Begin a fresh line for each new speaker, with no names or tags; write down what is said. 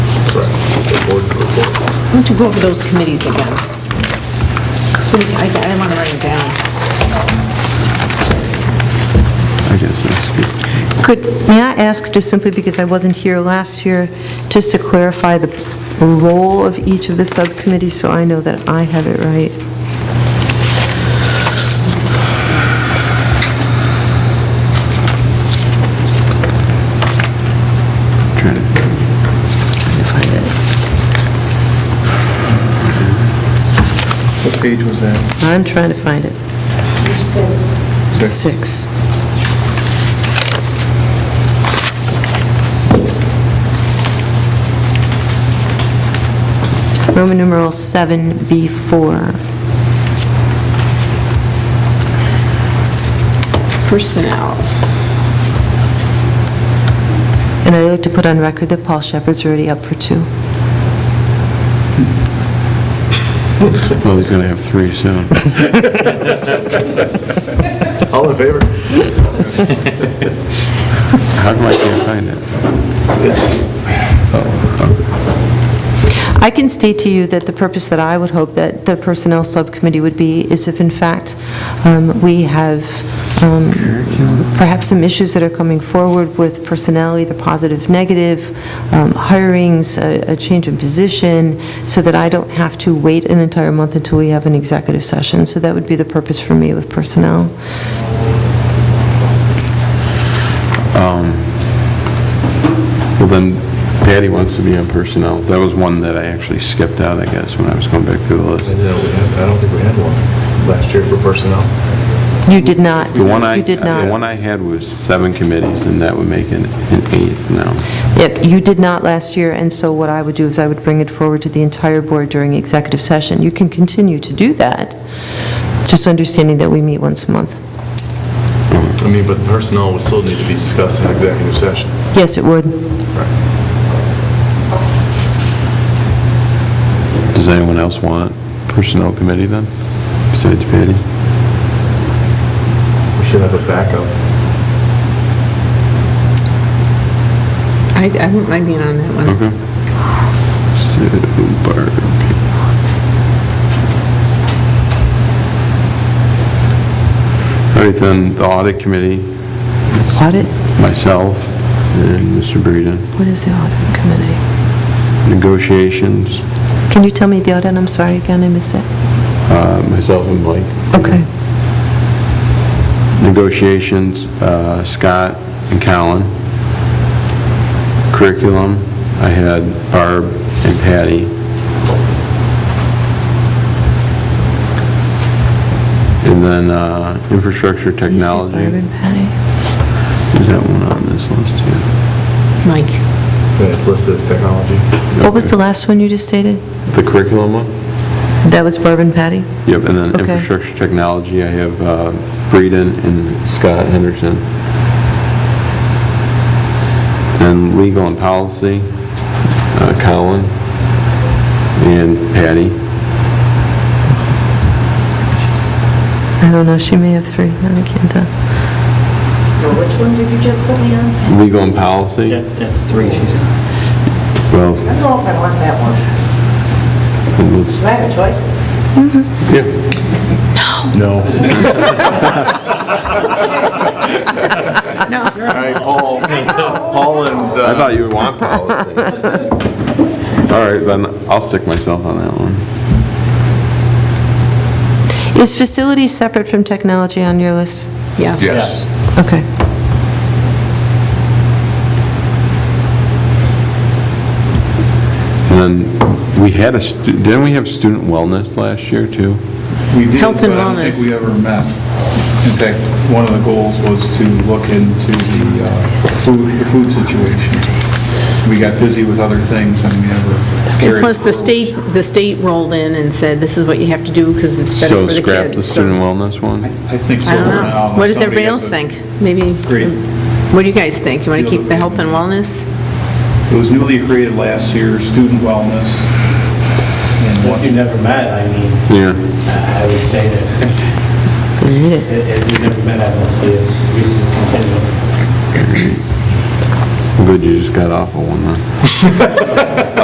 Correct. The board report.
Why don't you go over those committees again? So we- I want to write it down.
I guess that's good.
Could, may I ask, just simply because I wasn't here last year, just to clarify the role of each of the subcommittees, so I know that I have it right?
Trying to-
Trying to find it.
What page was that?
I'm trying to find it. Six. Roman numeral 7B4.
Personnel.
And I'd like to put on record that Paul Shepherd's already up for two.
Well, he's going to have three soon.
All in favor?
How come I can't find it?
I can state to you that the purpose that I would hope that the Personnel Subcommittee would be is if, in fact, um, we have um, perhaps some issues that are coming forward with personnel, either positive, negative, um, hirings, a a change in position, so that I don't have to wait an entire month until we have an executive session. So that would be the purpose for me with personnel.
Well, then Patty wants to be on personnel. That was one that I actually skipped out, I guess, when I was going back through the
I
list.
know we had- I don't think we had one last year for personnel.
You did not.
The one I,
You did not.
the one I had was seven committees, and that would make it an eighth now.
Yep, you did not last year, and so what I would do is I would bring it forward to the entire board during executive session. You can continue to do that, just understanding that we meet once a month.
I mean, but personnel would still need to be discussed in executive session.
Yes, it would.
Does anyone else want personnel committee then, besides Patty?
We should have a backup.
I I wouldn't mind being on that one.
Okay. So, Barb. All right, then, the audit committee,
Audit?
myself and Mr. Breeden.
What is the audit committee?
Negotiations,
Can you tell me the audit? I'm sorry, again, I missed it.
uh, myself and Mike.
Okay.
Negotiations, uh, Scott and Colin. Curriculum, I had Barb and Patty. And then uh, infrastructure technology.
You said Barb and Patty.
There's that one on this list, too. Mm-hmm.
Mike.
And it's listed as technology.
What was the last one you just stated?
The curriculum one?
That was Barb and Patty?
Yep, and then
Okay.
infrastructure technology, I have uh, Breeden and Scott Henderson. Then legal and policy, uh, Colin and Patty.
I don't know, she may have three, I can't tell.
Which one did you just put me on? I
Legal and policy,
That's three, she said.
well,
don't know if I want that one.
let's,
Do I have a choice?
yeah,
No.
All right, Paul, Paul and,
I
uh,
thought you would want policy. All right, then I'll stick myself on that one.
Is facilities separate from technology on your list?
Yeah.
yes.
Okay.
And then we had a, stu- didn't we have student wellness last year, too?
We did,
Health
but
and
I don't think
wellness.
we ever met. In fact, one of the goals was to look into the uh, food, the food situation. We got busy with other things and we never
And
carried.
plus, the state, the state rolled in and said, this is what you have to do because it's better
So
for the kids.
scrap the
So,
student wellness one?
I think so.
I don't
for now,
know.
unless
What does
somebody
everybody else
gets a-
think? Maybe,
Agreed.
what do you guys think? You want to
Feel
keep the
that
health
we-
and wellness?
It was newly created last year, student wellness. and
If
what-
you never met, I mean,
Yeah.
I would say that if you never met, I don't see a reason to continue.
Good, you just got off of one, huh?